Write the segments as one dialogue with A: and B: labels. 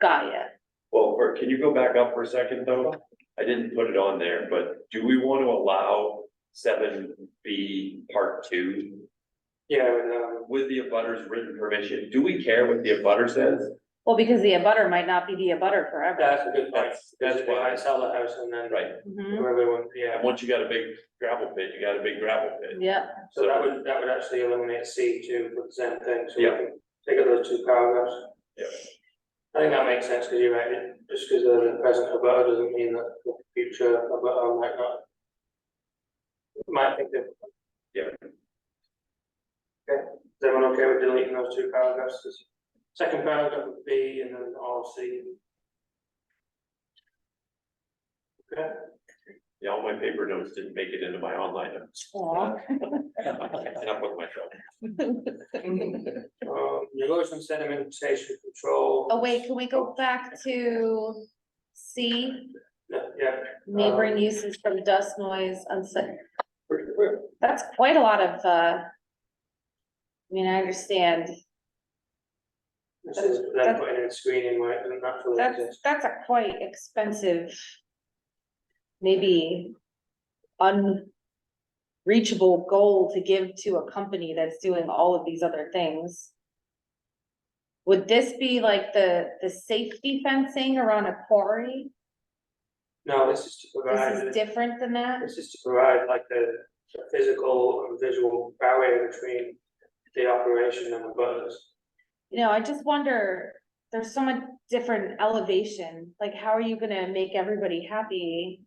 A: Gaia.
B: Well, for- can you go back up for a second though? I didn't put it on there, but do we want to allow seven B part two?
C: Yeah, and, um,
B: With the abutters written permission, do we care what the abutter says?
A: Well, because the abutter might not be the abutter forever.
C: that's a good point,
B: That's,
C: that's
B: that's
C: why I
B: why,
C: sell the house and then.
B: right,
A: Mhm.
C: Whoever wants,
B: and
C: yeah,
B: once you got a big gravel pit, you got a big gravel pit.
A: Yeah,
C: so that would, that would actually eliminate C two for the same thing, so we
B: Yeah.
C: can take out those two paragraphs.
B: Yeah.
C: I think that makes sense, because you're right, it- just because the present abutter doesn't mean that the future abutter might not. Might think that.
B: Yeah.
C: Okay, is everyone okay with deleting those two paragraphs? 'Cause Second paragraph would be and then all C. Okay.
B: Yeah, all my paper notes didn't make it into my online notes.
A: Aw.
B: I can't sit up with myself.
C: Um, erosion sedimentation control.
A: Oh, wait, can we go back to C,
C: Yeah, Yeah,
A: neighboring uses from dust, noise, unsafe? That's quite a lot of, uh, I mean, I understand,
C: this is them putting in screening where it doesn't naturally
A: that's,
C: exist.
A: that's a quite expensive, maybe unreachable goal to give to a company that's doing all of these other things. Would this be like the, the safety fencing around a quarry?
C: No, this is to
A: This is
C: provide,
A: different than that?
C: this is to provide like the the physical and visual barrier between the operation and the butters.
A: You know, I just wonder, there's so much different elevation, like how are you gonna make everybody happy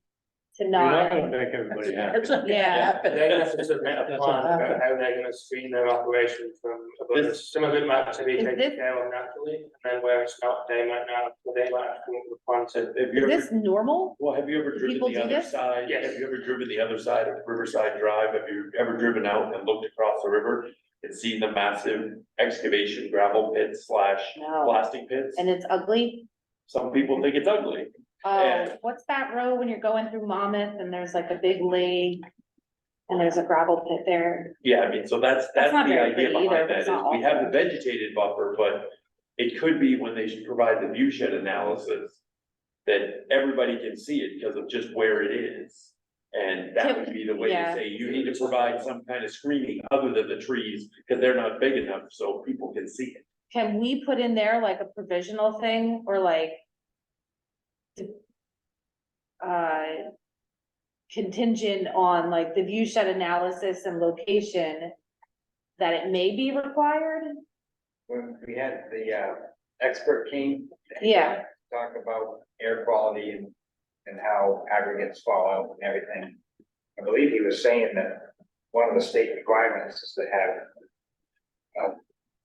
A: to not?
B: make everybody
A: Yeah,
C: They're gonna have to submit a plan about how they're gonna screen their operation from abutters. Some of it might have to be
A: Is
C: taken
A: this-
C: care of naturally, and then where it's not, they might not, they might have to come up with a plan to
B: Have have you
A: is
B: ever
A: this normal?
B: Well, have you ever
A: Do
B: driven
A: people
B: the
A: do
B: other
A: this?
B: side?
C: Yes.
B: Have you ever driven the other side of Riverside Drive? Have you ever driven out and looked across the river? And seen the massive excavation gravel pits slash
A: No,
B: plastic pits?
A: and it's ugly?
B: Some people think it's ugly.
A: Oh,
B: Yeah.
A: what's that road when you're going through Monmouth and there's like a big lake? And there's a gravel pit there,
B: Yeah, I mean, so that's,
A: That's
B: that's
A: not
B: the
A: very
B: idea
A: pretty either,
B: behind that
A: it's
B: is
A: not
B: we have the vegetated buffer, but it could be when they should provide the view shed analysis that everybody can see it because of just where it is. And that
A: Can-
B: would be the way to
A: yeah.
B: say you need to provide some kind of screening other than the trees because they're not big enough so people can see it.
A: can we put in there like a provisional thing or like? d- Uh. Contingent on like the view shed analysis and location. That it may be required,
D: when we had the uh expert came.
A: Yeah.
D: Talk about air quality and and how aggregates fall out and everything. I believe he was saying that one of the state requirements is to have a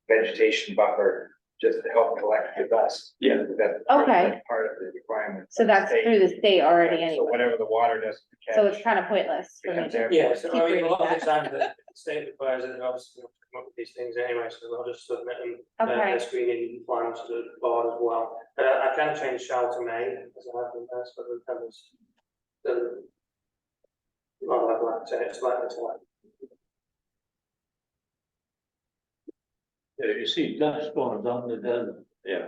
D: vegetation buffer just to help collect the dust.
B: Yeah.
D: That's
A: Okay.
D: Part of the requirement.
A: so
D: of the
A: that's
D: state.
A: through the state already
D: So
A: anyway,
D: whatever the water does.
A: so it's kind of pointless for me.
D: Becomes air.
C: Yeah, so
A: Keep
C: I mean, a
A: reading
C: lot of
A: that.
C: the times the state requires that they obviously have to come up with these things anyway, so they'll just submit them. uh,
A: Okay.
C: Their screening plans to the board as well, but I I can change shall to may, as I have in there, so the covers. The. Not like that, so it's like it's like.
E: Yeah, you see dust storms on the desert,
B: Yeah,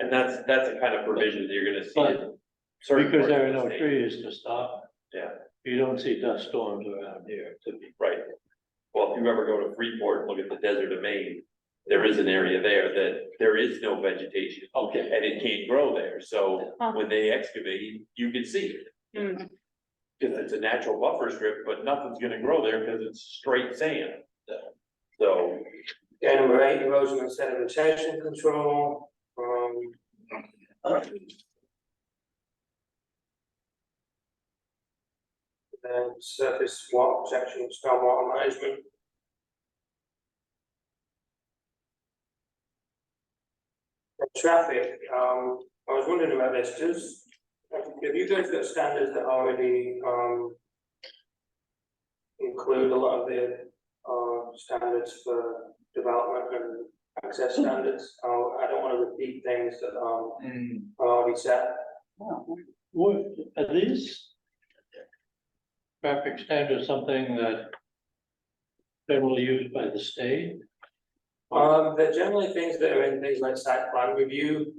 B: and that's, that's the kind of provision that you're gonna see. in certain
E: because there are
B: parts of
E: no
B: the state.
E: trees to stop. it.
B: Yeah.
E: You don't see dust storms around here, to me.
B: Right. Well, if you ever go to Freeport, look at the desert of Maine, there is an area there that there is no vegetation.
E: Okay.
B: And it can't grow there, so
A: Huh.
B: when they excavate, you can see it. Cause it's a natural buffer strip, but nothing's gonna grow there because it's straight sand. So,
C: Yeah, number eight, erosion and sedimentation control, um. Then surface water protection, and stormwater management. And Traffic, um, I was wondering about this, does, have you guys got standards that already, um. Include a lot of the uh, standards for development and access standards. Oh, I don't wanna repeat things that, um,
D: Hmm,
C: are already set.
E: What, are these? Traffic standards, something that generally used by the state?
C: Um, they're generally things that are in things like site plan review,